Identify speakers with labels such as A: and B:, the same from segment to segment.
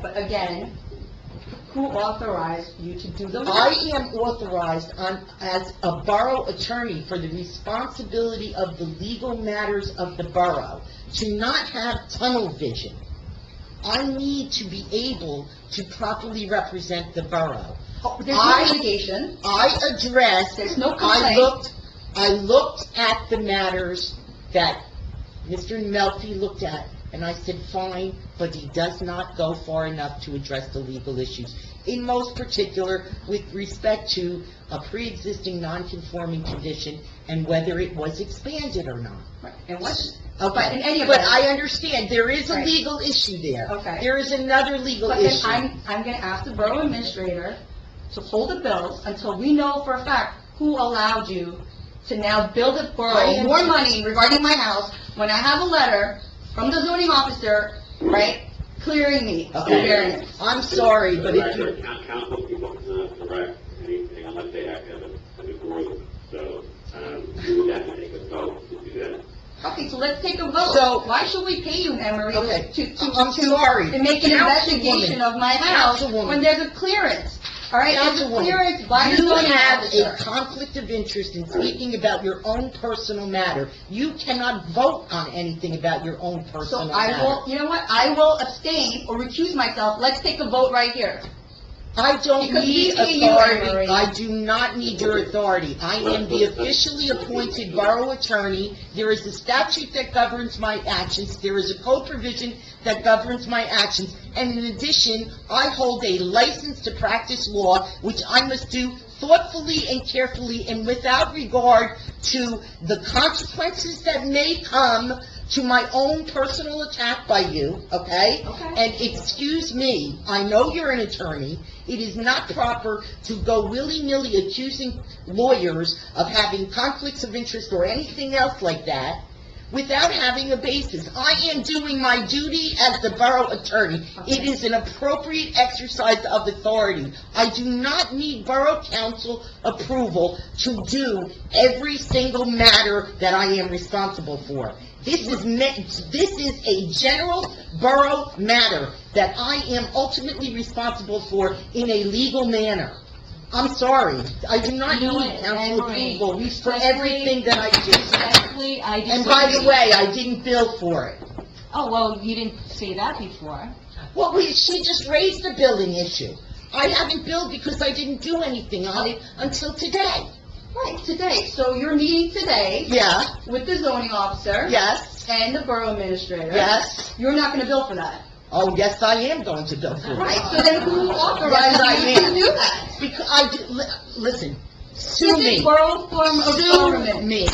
A: but again, who authorized you to do the work?
B: I am authorized on, as a borough attorney for the responsibility of the legal matters of the borough, to not have tunnel vision. I need to be able to properly represent the borough.
A: Oh, There's no
B: I-
A: litigation,
B: I addressed.
A: There's no
B: I
A: complaint.
B: looked, I looked at the matters that Mr. Melfi looked at, and I said, fine, but he does not go far enough to address the legal issues. In most particular, with respect to a pre-existing non-conforming condition and whether it was expanded or not.
A: and what, Oh, But in any
B: Okay,
A: event-
B: but I understand, there is a
A: Right.
B: legal issue there.
A: Okay.
B: There is another legal
A: but then
B: issue.
A: I'm, I'm gonna ask the borough administrator to hold the bills until we know for a fact who allowed you to now bill the
B: I
A: borough
B: am-
A: more money regarding my house, when I have a letter from the zoning officer, right, clearing me of
B: Okay.
A: variance.
B: I'm sorry, but if you...
C: The record, coun- council people cannot direct anything unless they act as a, as a group, so, um, we would have to take a vote to do that.
A: Okay, so let's take a vote.
B: So-
A: Why should we pay you, Emery,
B: Okay.
A: to, to,
B: I'm
A: to-
B: sorry.
A: to make an
B: Councilwoman.
A: investigation of my house
B: Councilwoman.
A: when there's a clearance? All right, there's a
B: Councilwoman,
A: clearance by the
B: You
A: zoning
B: have a
A: officer.
B: conflict of interest in speaking about your own personal matter. You cannot vote on anything about your own
A: So
B: personal
A: I will,
B: matter.
A: you know what, I will abstain or recuse myself. Let's take a vote right here.
B: I don't
A: Because
B: need
A: we see you, Emery.
B: authority, I do not need your authority. I am the officially appointed borough attorney. There is a statute that governs my actions, there is a code provision that governs my actions. And in addition, I hold a license to practice law, which I must do thoughtfully and carefully and without regard to the consequences that may come to my own personal attack by you, okay?
A: Okay.
B: And excuse me, I know you're an attorney, it is not proper to go willy-nilly accusing lawyers of having conflicts of interest or anything else like that without having a basis. I am doing my duty as the borough attorney. It is an appropriate exercise of authority. I do not need borough council approval to do every single matter that I am responsible for. This is, me- this is a general borough matter that I am ultimately responsible for in a legal manner. I'm sorry, I do not
D: You know
B: need
D: what,
B: council
D: Emery,
B: approval for
D: respectfully-
B: everything that I do.
D: Respectfully, I disagree.
B: And by the way, I didn't bill for it.
D: Oh, well, you didn't say that before.
B: Well, we, she just raised the billing issue. I haven't billed because I didn't do anything on it until today.
A: Right, today. So you're meeting today
B: Yeah,
A: with the zoning officer
B: yes,
A: and the borough administrator.
B: yes.
A: You're not gonna bill for that.
B: Oh, yes, I am going to bill for it.
A: Right, so then who
B: Yes, I
A: authorized you to
B: am.
A: do that?
B: Because I, did- li- listen, sue
A: This is
B: me.
A: borough form of
B: Sue
A: government.
B: me.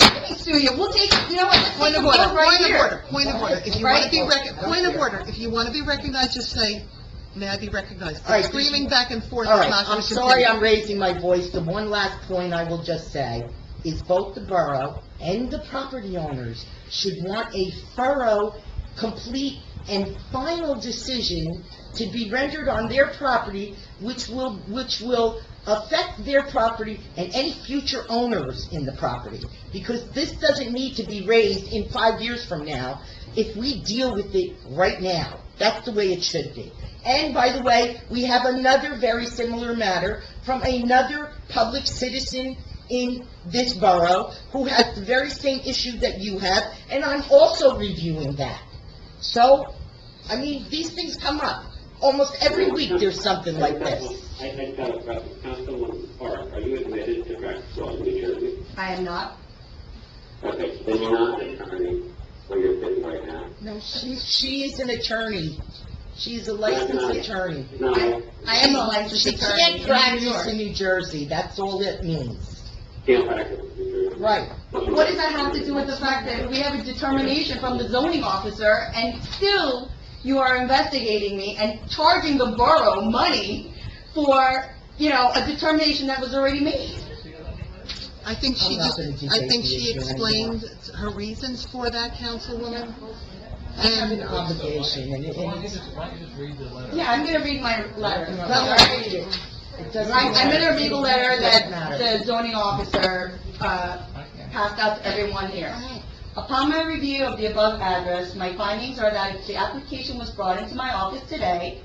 A: Let me sue you, we'll take, you know what, let's
E: Point
A: take a
E: of order,
A: vote right
E: point of
A: here.
E: order, point of order. If you want to be rec, point of order, if you want to be recognized, just say, may I be recognized?
B: All right,
E: Screaming back and forth
B: All
E: is
B: right,
E: not
B: I'm
E: going to
B: sorry I'm raising my voice. The one last point I will just say is both the borough and the property owners should want a thorough, complete, and final decision to be rendered on their property, which will, which will affect their property and any future owners in the property. Because this doesn't need to be raised in five years from now if we deal with it right now. That's the way it should be. And by the way, we have another very similar matter from another public citizen in this borough who has the very same issue that you have, and I'm also reviewing that. So, I mean, these things come up. Almost every week, there's something like this.
C: I, I got a question, Councilwoman Park, are you admitted to practice law in New Jersey?
A: I am not.
C: Okay, so then you're not an attorney, where you're sitting right now?
B: No, she, she is an attorney. She's a licensed attorney.
C: No,
A: I am a licensed
B: She
A: attorney.
B: can't
A: in New
B: practice
A: York.
B: in New Jersey, that's all it means.
C: can't practice in New Jersey.
B: Right.
A: What does that have to do with the fact that we have a determination from the zoning officer, and still you are investigating me and charging the borough money for, you know, a determination that was already made?
E: I think she
B: I'm not
E: just,
B: gonna do
E: I think
B: safety
E: she
B: issue
E: explained her reasons for that, Councilwoman.
B: I have an
E: And
B: obligation, and it,
F: Why don't
B: and
F: you
B: it's,
F: just, why don't you just read the letter?
A: Yeah, I'm gonna read my letter.
B: well, I read it. It doesn't
A: Right, I'm gonna read the letter that
B: Doesn't matter.
A: the zoning officer, uh,
F: Okay.
A: passed out to everyone here. Upon my review of the above address, my findings are that the application was brought into my office today,